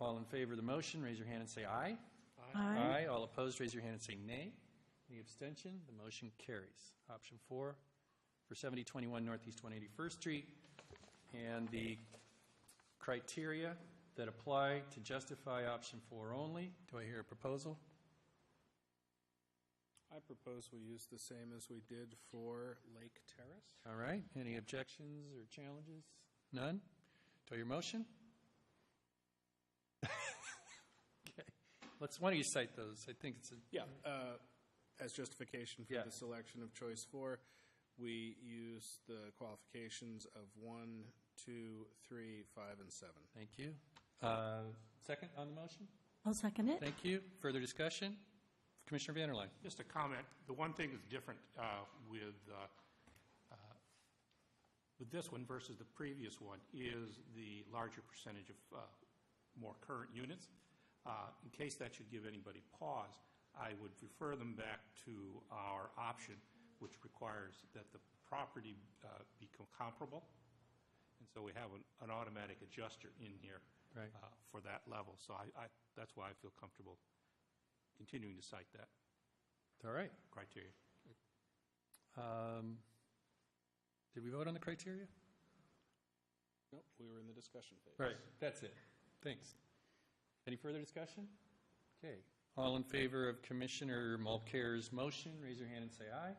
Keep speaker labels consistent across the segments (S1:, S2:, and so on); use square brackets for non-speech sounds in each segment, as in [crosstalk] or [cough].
S1: All in favor of the motion, raise your hand and say aye.
S2: Aye.
S1: All opposed, raise your hand and say nay. Any abstention? The motion carries. Option four for 7021 Northeast 181st Street, and the criteria that apply to justify option four only. Do I hear a proposal?
S3: I propose we use the same as we did for Lake Terrace.
S1: All right, any objections or challenges? None? To your motion? [laughs] Okay, let's, why don't you cite those? I think it's, a-
S3: Yeah, uh, as justification for
S1: Yeah.
S3: the selection of choice four, we use the qualifications of one, two, three, five, and seven.
S1: thank you. Uh, Second on the motion?
S2: I'll second it.
S1: Thank you. Further discussion? Commissioner Vanderline?
S4: Just a comment, the one thing that's different uh, with, uh, uh, with this one versus the previous one is the larger percentage of uh, more current units. Uh, In case that should give anybody pause, I would refer them back to our option, which requires that the property uh, be com- comparable. And so we have an- an automatic adjuster in here
S1: Right.
S4: uh, for that level. So I, I- that's why I feel comfortable continuing to cite that
S1: All right.
S4: criteria.
S1: Um, Did we vote on the criteria?
S3: Nope, we were in the discussion phase.
S1: Right, that's it. Thanks. Any further discussion? Okay. All in favor of Commissioner Mulcair's motion, raise your hand and say aye.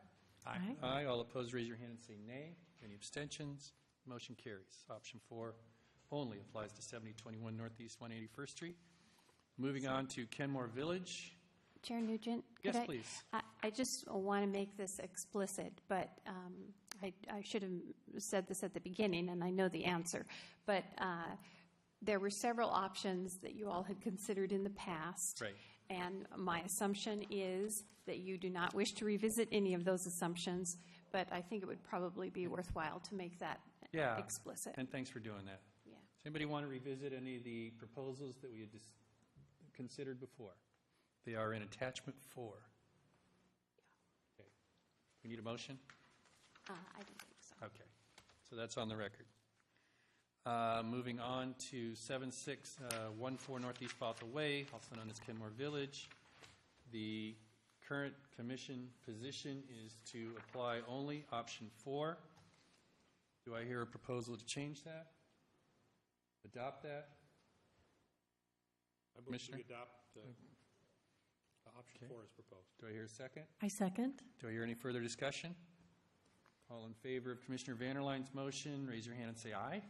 S2: Aye.
S1: Aye. All opposed, raise your hand and say nay. Any abstentions? Motion carries. Option four only applies to 7021 Northeast 181st Street. Moving on to Kenmore Village.
S5: Chair Nugent? could
S1: Yes,
S5: I-
S1: please.
S5: I- I just want to make this explicit, but um, I I should have said this at the beginning, and I know the answer. But uh, there were several options that you all had considered in the past.
S1: Right.
S5: And my assumption is that you do not wish to revisit any of those assumptions, but I think it would probably be worthwhile to make that
S1: Yeah.
S5: explicit.
S1: And thanks for doing that.
S5: Yeah.
S1: Does anybody want to revisit any of the proposals that we had dis- considered before? They are in attachment four. Okay. We need a motion?
S5: Uh, I don't think so.
S1: Okay, so that's on the record. Uh, Moving on to 7614 Northeast Bothell Way, also known as Kenmore Village. The current commission position is to apply only option four. Do I hear a proposal to change that? Adopt that?
S4: I believe
S1: Commissioner?
S4: we adopt the the option
S1: Okay.
S4: four as proposed.
S1: Do I hear a second?
S2: I second.
S1: Do I hear any further discussion? All in favor of Commissioner Vanderline's motion, raise your hand and say aye.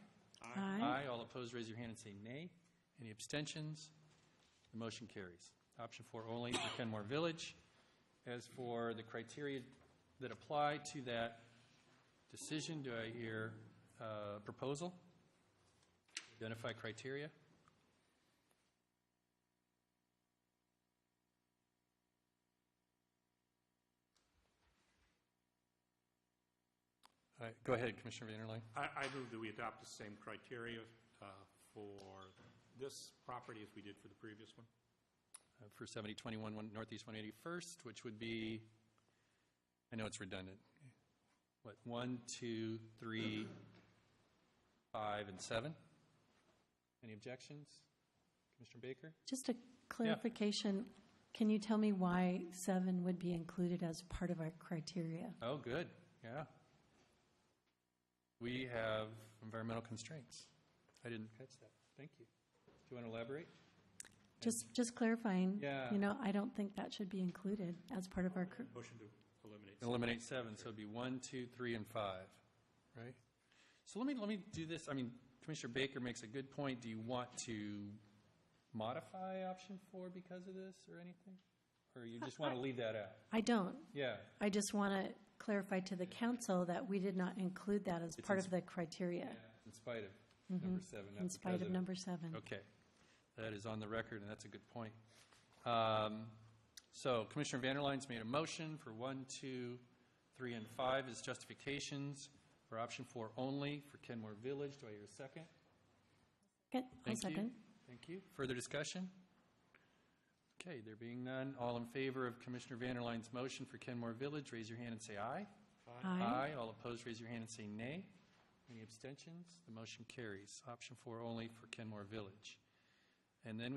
S2: Aye.
S1: All opposed, raise your hand and say nay. Any abstentions? The motion carries. Option four only for Kenmore Village. As for the criteria that apply to that decision, do I hear uh, proposal? Identify criteria? All right, go ahead, Commissioner Vanderline.
S4: I, I move that we adopt the same criteria uh, for this property as we did for the previous one.
S1: uh, for 7021 one- Northeast 181st, which would be, I know it's redundant, what, one, two, three, five, and 7? Any objections? Commissioner Baker?
S2: Just a clarification. Can you tell me why seven would be included as part of our criteria?
S1: Oh, good, yeah. We have environmental constraints. I didn't catch that. Thank you. Do you want to elaborate?
S2: Just, just clarifying.
S1: Yeah.
S2: You know, I don't think that should be included as part of our, cr-
S4: Motion to eliminate.
S1: Eliminate seven, so it'd be one, two, three, and five, right? So let me, let me do this, I mean, Commissioner Baker makes a good point. Do you want to modify option four because of this or anything? Or you just want to leave that out?
S2: I don't.
S1: Yeah,
S2: I just want to clarify to the council that we did not include that as part
S1: ins-
S2: of the criteria,
S1: in spite of number seven. not
S2: Mm-hmm. in spite
S1: because
S2: of
S1: it.
S2: number seven.
S1: Okay, that is on the record, and that's a good point. Um, So Commissioner Vanderline's made a motion for one, two, three, and five as justifications for option four only for Kenmore Village. Do I hear a second?
S2: Okay, I'll
S1: Thank you.
S2: second.
S1: Thank you. Further discussion? Okay, there being none, all in favor of Commissioner Vanderline's motion for Kenmore Village, raise your hand and say aye.
S2: Aye.
S1: All opposed, raise your hand and say nay. Any abstentions? The motion carries. Option four only for Kenmore Village. And then